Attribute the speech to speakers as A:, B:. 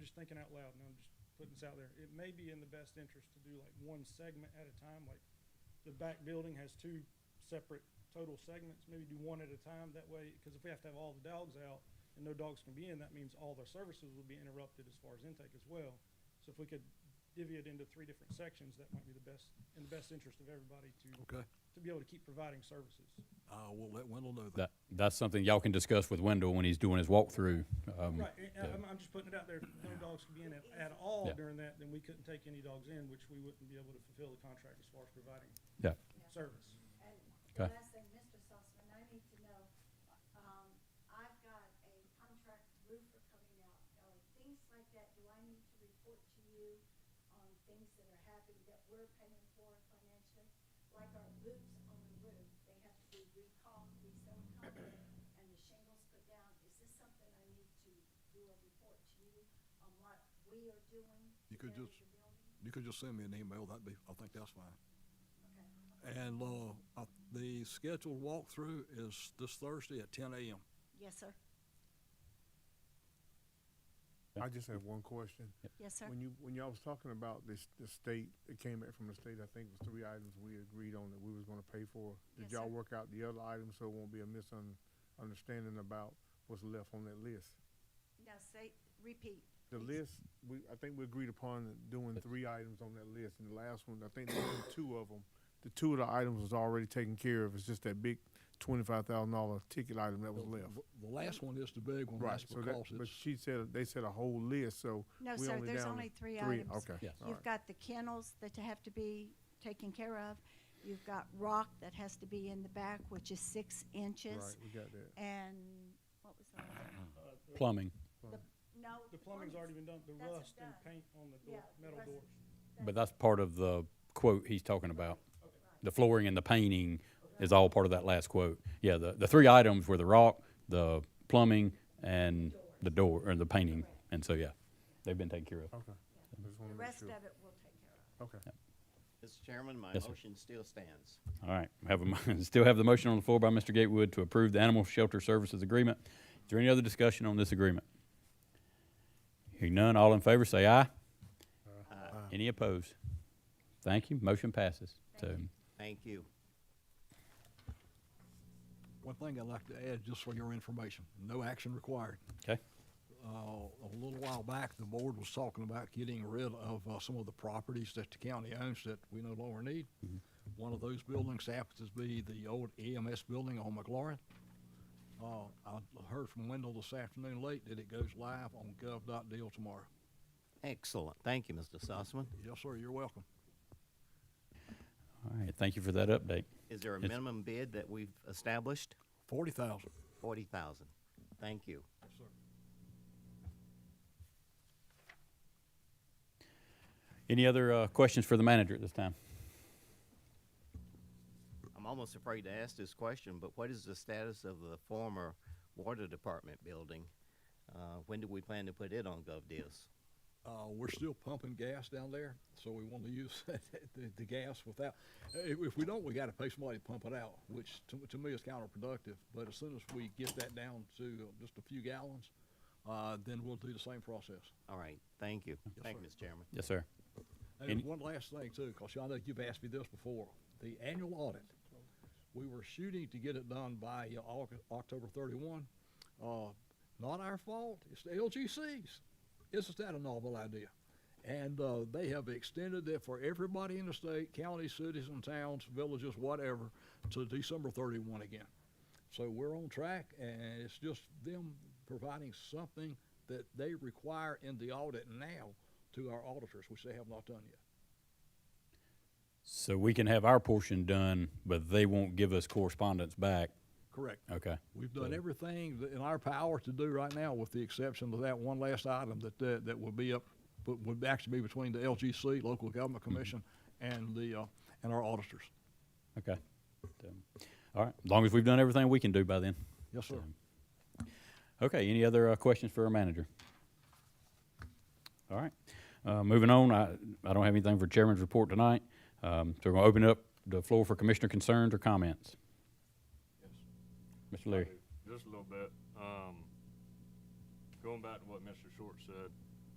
A: just thinking out loud, and I'm just putting this out there, it may be in the best interest to do like one segment at a time, like the back building has two separate total segments, maybe do one at a time, that way, because if we have to have all the dogs out and no dogs can be in, that means all their services will be interrupted as far as intake as well. So if we could divvy it into three different sections, that might be the best, in the best interest of everybody to,
B: Okay,
A: to be able to keep providing services.
B: I will let Wendell know that.
C: That, that's something y'all can discuss with Wendell when he's doing his walkthrough. Um,
A: Right, and- and I'm, I'm just putting it out there, if no dogs could be in at, at all
C: Yeah.
A: during that, then we couldn't take any dogs in, which we wouldn't be able to fulfill the contract as far as providing
C: Yeah,
A: service.
D: And
C: Okay.
D: the last thing, Mr. Sussman, I need to know, um, I've got a contract roofer coming out, uh, things like that, do I need to report to you on things that are happening that we're paying for financially? Like our roofs on the roof, they have to be recalled, re-silicone, and the shingles put down, is this something I need to do a report to you on what we are doing?
B: You could
D: together
B: just-
D: with the building?
B: You could just send me an email, that'd be, I think that's fine.
D: Okay,
B: And, uh, I- the scheduled walkthrough is this Thursday at ten AM.
D: yes, sir,
E: I just have one question.
D: yes, sir.
E: When you, when y'all was talking about this, the state, it came back from the state, I think it was three items we agreed on that we was gonna pay for.
D: Yes,
E: Did
D: sir.
E: y'all work out the other items so it won't be a misunderstanding about what's left on that list?
D: Now, say, repeat.
E: The
D: please.
E: list, we, I think we agreed upon doing three items on that list, and the last one, I think there were two of them. The two of the items was already taken care of, it's just that big twenty-five thousand dollar ticket item that was left.
B: The last one is the big one,
E: Right,
B: that's
E: so that,
B: because
E: but
B: it's,
E: she said, they said a whole list, so
D: No,
E: we
D: sir,
E: only
D: there's
E: down
D: only
E: to
D: three items.
E: Okay.
C: Yeah.
E: all
D: You've
E: right.
D: got the kennels that have to be taken care of. You've got rock that has to be in the back, which is six inches.
E: Right, we got that.
D: And what was the last?
A: Uh, the-
C: plumbing,
D: No.
A: The plumbing's already been done, the
D: That's
A: rust and
D: done.
A: paint on the
D: Yeah,
A: door, metal
D: rust-
A: doors.
C: but that's part of the quote he's talking about. The flooring and the painting is all part of that last quote. Yeah, the, the three items were the rock, the plumbing, and the door, or the painting. And so, yeah, they've been taken care of.
E: Okay. I just wanna
D: The
E: make
D: rest
E: sure.
D: of it we'll take care of.
E: Okay.
F: Mr. Chairman, my
C: Yes, sir.
F: motion still stands.
C: All right, we have a, mo- still have the motion on the floor by Mr. Gatewood to approve the Animal Shelter Services Agreement. Is there any other discussion on this agreement? Hearing none, all in favor, say aye. Any opposed? Thank you, motion passes. So,
F: Thank you.
B: one thing I'd like to add, just for your information, no action required.
C: okay,
B: uh, a little while back, the board was talking about getting rid of uh, some of the properties that the county owns that we no longer need. One of those buildings happens to be the old EMS building on McLaurin. Uh, I heard from Wendell this afternoon late that it goes live on gov.deal tomorrow.
F: Excellent. Thank you, Mr. Sussman.
B: Yes, sir, you're welcome.
C: all right, thank you for that update.
F: Is there a
C: Yes.
F: minimum bid that we've established?
B: Forty thousand.
F: Forty thousand. Thank you.
C: Any other, uh, questions for the manager at this time?
F: I'm almost afraid to ask this question, but what is the status of the former water department building? Uh, when do we plan to put it on GovDeals?
B: Uh, we're still pumping gas down there, so we want to use the, the gas without, if, if we don't, we gotta pay somebody to pump it out, which to, to me is counterproductive. But as soon as we get that down to just a few gallons, uh, then we'll do the same process.
F: All right, thank you. Thank you,
B: sir.
F: Mr. Chairman.
C: Yes, sir. Any-
B: And one last thing too, because y'all know you've asked me this before, the annual audit. We were shooting to get it done by uh, Au- October thirty-one. Uh, not our fault, it's the LGC's. Isn't that a novel idea? And, uh, they have extended it for everybody in the state, counties, cities and towns, villages, whatever, to December thirty-one again. So we're on track and it's just them providing something that they require in the audit now to our auditors, which they have not done yet.
C: So we can have our portion done, but they won't give us correspondence back,
B: Correct.
C: okay?
B: We've done everything that in our power to do right now, with the exception of that one last item that, that, that would be up, would would actually be between the LGC, Local Government Commission, and the, uh, and our auditors.
C: Okay. So, All right, as long as we've done everything we can do by then.
B: Yes, sir.
C: Okay, any other uh, questions for our manager? All right, uh, moving on, I, I don't have anything for chairman's report tonight. Um, so we're gonna open up the floor for commissioner concerns or comments. Mr. Leary,
G: Just a little bit. Um, going back to what Mr. Short said,